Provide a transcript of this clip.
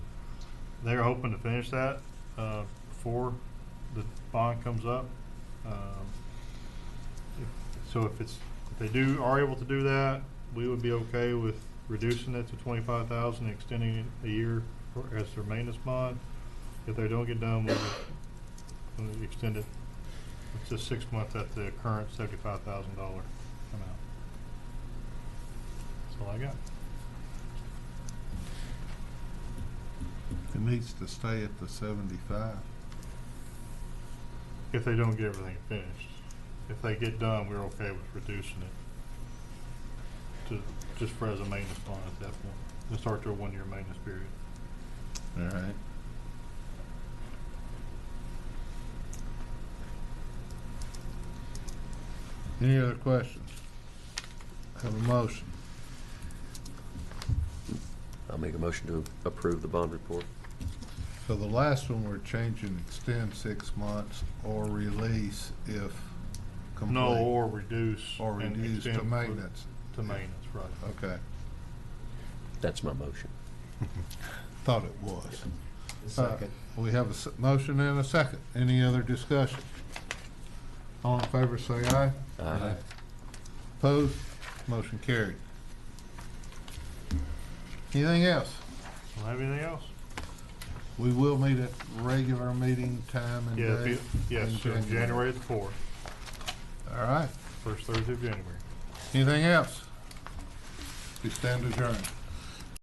they're hoping to finish that, uh, before the bond comes up. Um, if- So if it's, if they do, are able to do that, we would be okay with reducing it to twenty-five thousand, extending it a year for- as their maintenance bond. If they don't get done, we'll, we'll extend it, it's just six months at the current seventy-five thousand dollar amount. That's all I got. It needs to stay at the seventy-five. If they don't get everything finished. If they get done, we're okay with reducing it to, just for as a maintenance bond at that point. Let's start their one-year maintenance period. All right. Any other questions? Have a motion. I'll make a motion to approve the bond report. So the last one, we're changing extend six months or release if complete. No, or reduce. Or and reduce to extend for- maintenance. To maintenance, right. Okay, That's my motion. thought it was. Uh, We have a s- motion and a second. Any other discussion? All in favor, say aye. Aye. Opposed? Motion carried. Anything else? Don't have anything else? We will meet at regular meeting time and Yeah, if date. you- yes, in sir, January the fourth, All right. first Thursday of January. Anything else? We stand adjourned.